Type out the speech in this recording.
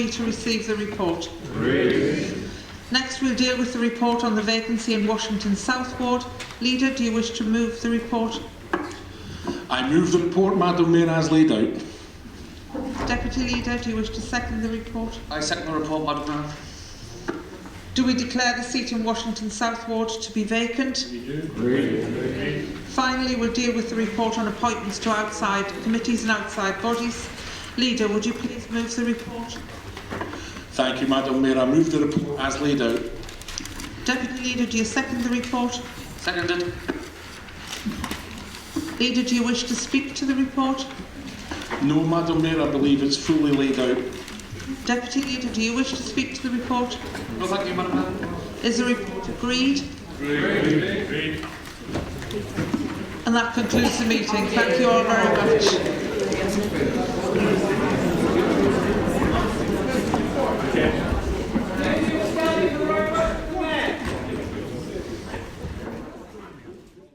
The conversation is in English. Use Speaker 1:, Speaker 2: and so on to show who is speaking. Speaker 1: to receive the report. Next, we'll deal with the report on the vacancy in Washington South Ward. Leader, do you wish to move the report?
Speaker 2: I move the report, Madam Mayor, as laid out.
Speaker 1: Deputy Leader, do you wish to second the report?
Speaker 3: I second the report, Madam Mayor.
Speaker 1: Do we declare the seat in Washington South Ward to be vacant? We do. Finally, we'll deal with the report on appointments to outside committees and outside bodies. Leader, would you please move the report?
Speaker 2: Thank you, Madam Mayor. I move the report as laid out.
Speaker 1: Deputy Leader, do you second the report?
Speaker 3: Seconded.
Speaker 1: Leader, do you wish to speak to the report?
Speaker 2: No, Madam Mayor, I believe it's fully laid out.
Speaker 1: Deputy Leader, do you wish to speak to the report?
Speaker 3: No, thank you, Madam Mayor.
Speaker 1: Is the report agreed? Agreed. And that concludes the meeting. Thank you all very much.